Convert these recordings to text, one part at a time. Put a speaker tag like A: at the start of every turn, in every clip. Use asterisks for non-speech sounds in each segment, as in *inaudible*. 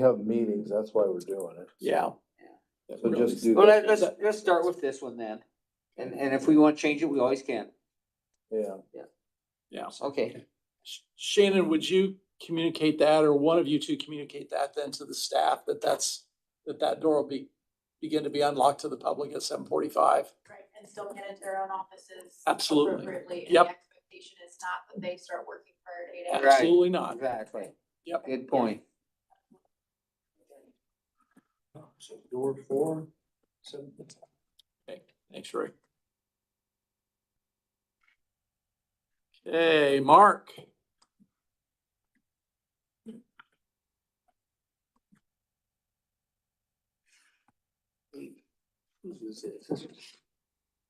A: have meetings, that's why we're doing it.
B: Yeah.
A: So just do
B: Well,
A: that,
B: let- let's, let's start with this one then. And, and if we want to change it, we always can.
A: yeah.
C: Yeah.
B: Okay.
C: Sh- Shannon, would you communicate that or one of you two communicate that then to the staff that that's, that that door will be, begin to be unlocked to the public at seven forty-five?
D: Right, and still get into their own offices.
C: Absolutely.
D: Appropriately, and
C: Yep.
D: the expectation is not that they start working prior to eight hours.
B: Right.
C: Absolutely not.
B: Exactly.
C: Yep.
B: Good point.
C: So door four, seven. Okay, thanks, Rick. Okay, Mark.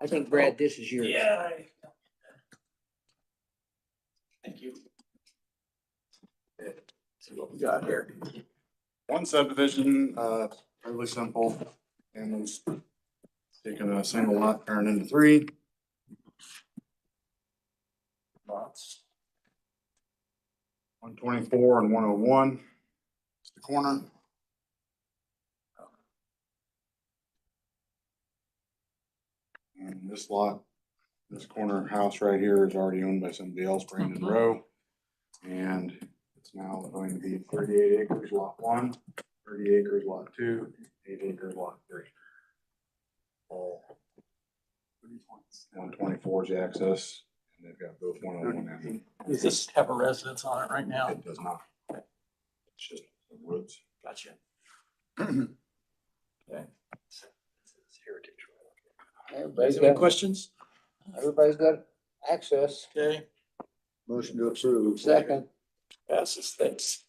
B: I think Brad, this is yours.
C: Thank you. See what we got here.
E: One subdivision, uh, fairly simple, and it's taking a single lot, turned into three. Lots. One twenty-four and one oh one, it's the corner. And this lot, this corner house right here is already owned by somebody else, Brandon Rowe. And it's now going to be thirty-eight acres, lot one. 30 acres lot two, eight acres lot three. All. One twenty-four is the access, and they've got both one oh one and
C: Does this have a residence on it right now?
E: it does not. It's just the woods.
C: Gotcha.
A: Everybody's
C: Any questions?
A: everybody's got access.
C: Okay,
A: Motion to approve.
B: Second.
C: passes, thanks.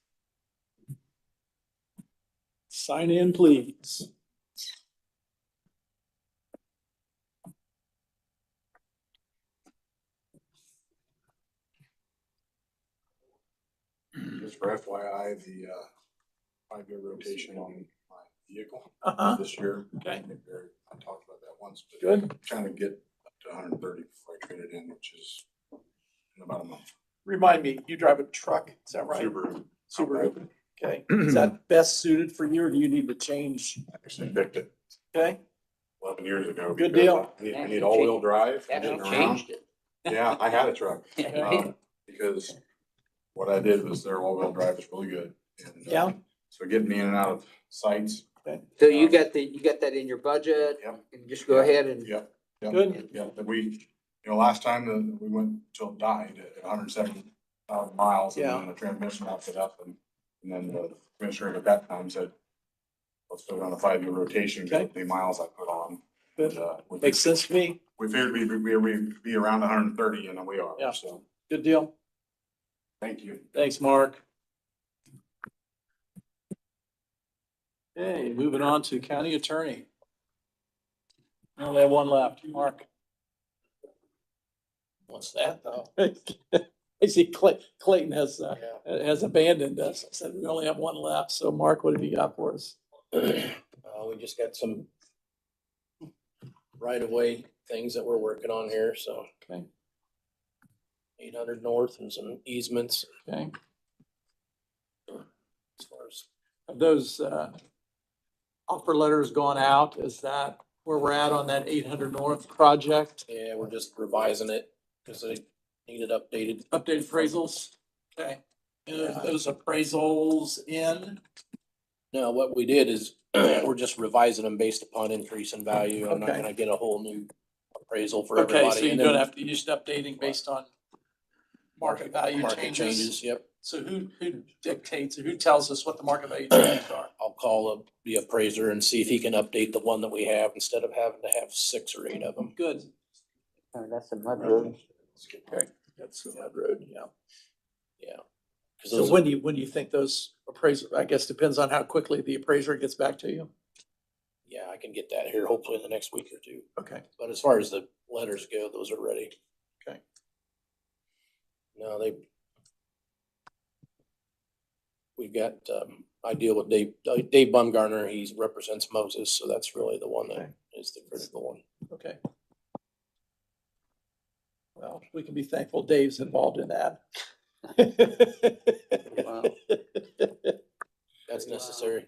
C: Sign in, please.
E: Just for FYI, the, uh, five-year rotation on my vehicle
C: Uh-huh,
E: this year. I
C: okay,
E: think there- I talked about that once, but
C: good.
E: trying to get up to hundred and thirty before I trade it in, which is in about a month.
C: Remind me, you drive a truck, is that right?
E: Subaru.
C: Subaru, *clears throat* okay. Is that best suited for you or do you need to change?
E: I Actually picked it
C: Okay,
E: eleven years ago.
C: Mm-hmm. Good
E: because
C: deal.
E: I need, I need all-wheel drive. for
B: Haven't
E: getting around.
B: changed it.
E: Yeah, I had a truck,
B: Right?
E: um, because what I did was their all-wheel drive is really good. and, uh,
C: Yeah.
E: So getting me in and out of sites,
B: So you got the, you got that in your budget?
E: Yep.
B: And just go ahead and.
E: yep,
C: good.
E: yep, that we, you know, last time that we went till it died at hundred and seventy thousand miles. and
C: Yeah.
E: then The transmission hooked it up and, and then the commissioner at that time said, let's put it on a five-year rotation,
C: Okay.
E: get the miles I put on.
C: Good.
E: And, uh, we-
C: Makes sense to me.
E: We figured we'd, be- we'd be around hundred and thirty and we are,
C: Yeah.
E: so,
C: Good deal.
E: thank you.
C: Thanks, Mark. Okay, moving on to county attorney. I Only have one left, Mark.
F: What's that though?
C: *laughs* I see Clay, Clayton has, uh, has abandoned us. I said we only have one left. So Mark, what have you got for us?
F: *clears throat* Uh, we just got some right of way things that we're working on here, so
C: Okay,
F: eight hundred north and some easements
C: okay.
F: as far as.
C: Have those, uh, offer letters gone out? Is that where we're at on that eight hundred north project?
F: Yeah, we're just revising it because they need it updated.
C: Updated appraisals? Okay. And are those appraisals in?
F: Now, what we did is *clears throat* we're just revising them based upon increase in value. I'm not
C: Okay.
F: gonna get a whole new appraisal for everybody.
C: Okay, so you
F: and
C: don't
F: then
C: have to use updating based on market value
F: market
C: changes.
F: Yep,
C: So who, who dictates, who tells us what the market value changes are?
F: I'll call up the appraiser and see if he can update the one that we have instead of having to have six or eight of them.
C: Good.
B: Oh, That's a mud road.
C: That's the mud road, yeah.
F: Because
C: So
F: those
C: when do you, when do you think those appraisal, I guess depends on how quickly the appraiser gets back to you?
F: Yeah, I can get that here hopefully in the next week or two.
C: Okay,
F: But as far as the letters go, those are ready.
C: Okay.
F: No, they. We've got, um, I deal with Dave, uh, Dave Bumgarner, he represents Moses, so that's really the one that
C: Okay.
F: is the critical one.
C: okay. Well, we can be thankful Dave's involved in that. *laughs*
B: Wow.
F: That's that's necessary.